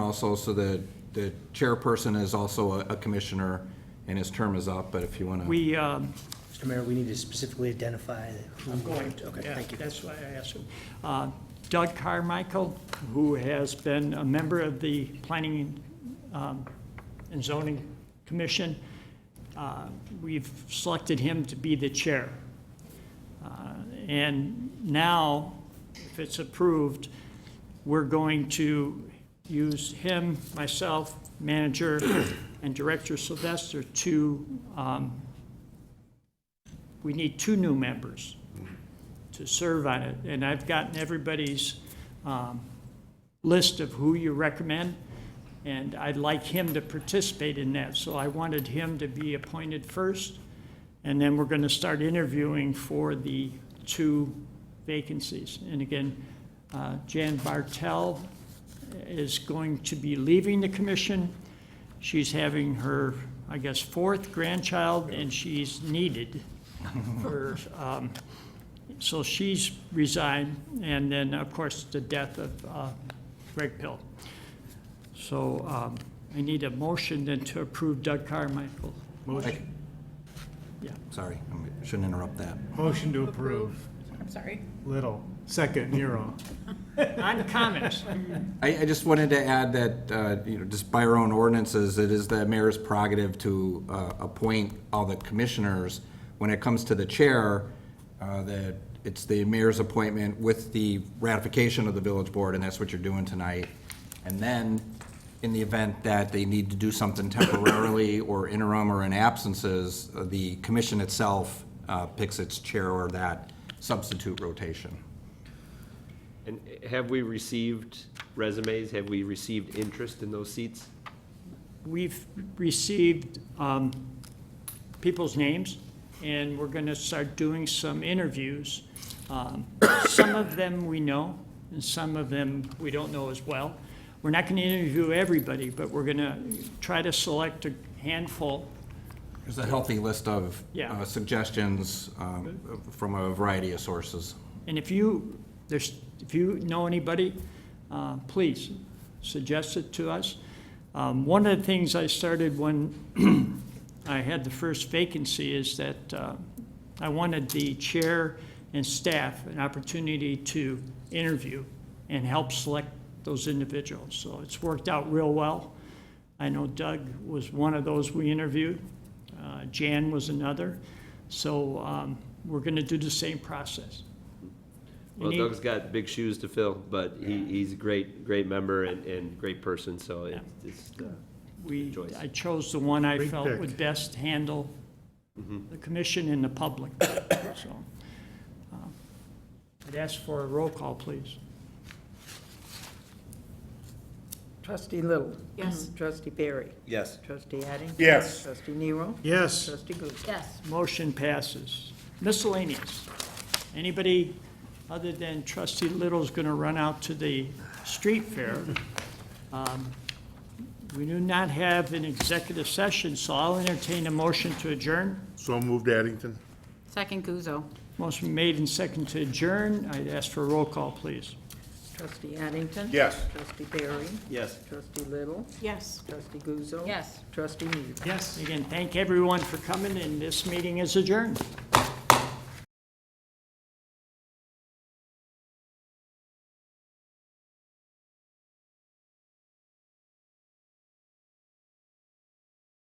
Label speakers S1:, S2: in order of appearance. S1: also, so the, the chairperson is also a a commissioner, and his term is up, but if you want to,
S2: We, um,
S3: Mr. Mayor, we need to specifically identify who.
S2: I'm going,
S3: Okay,
S2: yeah,
S3: thank you.
S2: that's why I asked him. Uh, Doug Carmichael, who has been a member of the Planning um, and Zoning Commission, uh, we've selected him to be the chair. Uh, And now, if it's approved, we're going to use him, myself, manager, and Director Sylvester to, um, we need two new members to serve on it. And I've gotten everybody's um, list of who you recommend, and I'd like him to participate in that. So I wanted him to be appointed first, and then we're going to start interviewing for the two vacancies. And again, uh, Jan Bartel is going to be leaving the commission. She's having her, I guess, fourth grandchild, and she's needed for um, so she's resigned, and then, of course, the death of uh, Greg Pill. So um, I need a motion then to approve Doug Carmichael.
S1: Motion.
S2: Yeah.
S1: sorry, I shouldn't interrupt that.
S4: Motion to approve.
S5: I'm sorry.
S4: Little. Second, Nero.
S2: On comments,
S1: I, I just wanted to add that, uh, you know, just by our own ordinances, it is the mayor's prerogative to uh, appoint all the commissioners. When it comes to the chair, uh, that it's the mayor's appointment with the ratification of the village board, and that's what you're doing tonight. And then, in the event that they need to do something temporarily or interim or in absences, uh, the commission itself uh, picks its chair or that substitute rotation.
S6: And have we received resumes? Have we received interest in those seats?
S2: we've received um, people's names, and we're going to start doing some interviews. Um, Some of them we know, and some of them we don't know as well. We're not going to interview everybody, but we're going to try to select a handful.
S1: There's a healthy list of
S2: Yeah.
S1: uh, suggestions um, from a variety of sources.
S2: And if you, there's, if you know anybody, uh, please suggest it to us. Um, One of the things I started when I had the first vacancy is that uh, I wanted the chair and staff an opportunity to interview and help select those individuals. So it's worked out real well. I know Doug was one of those we interviewed. Uh, Jan was another. So um, we're going to do the same process. You
S6: Well,
S2: need-
S6: Doug's got big shoes to fill, but he, he's a great, great member and, and great person, so it's, it's, uh,
S2: We,
S6: choice.
S2: I chose the one I
S4: Great
S2: felt
S4: pick.
S2: would best handle the commission and the public, so. uh, I'd ask for a roll call, please.
S7: Trustee Little. Mm-hmm.
S5: Yes.
S7: Trustee Barry.
S6: Yes.
S7: Trustee Addington.
S4: Yes.
S7: Trustee Nero.
S4: Yes.
S7: Trustee Guzzo.
S5: Yes.
S2: Motion passes. Miscellaneous. Anybody other than trustee Little's going to run out to the street fair? Um, We do not have an executive session, so I'll entertain a motion to adjourn.
S8: So moved, Addington.
S5: Second Guzzo.
S2: Motion made and second to adjourn. I'd ask for a roll call, please.
S7: Trustee Addington.
S8: Yes.
S7: Trustee Barry.
S6: yes.
S7: Trustee Little.
S5: Yes.
S7: Trustee Guzzo.
S5: Yes.
S7: Trustee Nero.
S2: Yes. Again, thank everyone for coming, and this meeting is adjourned.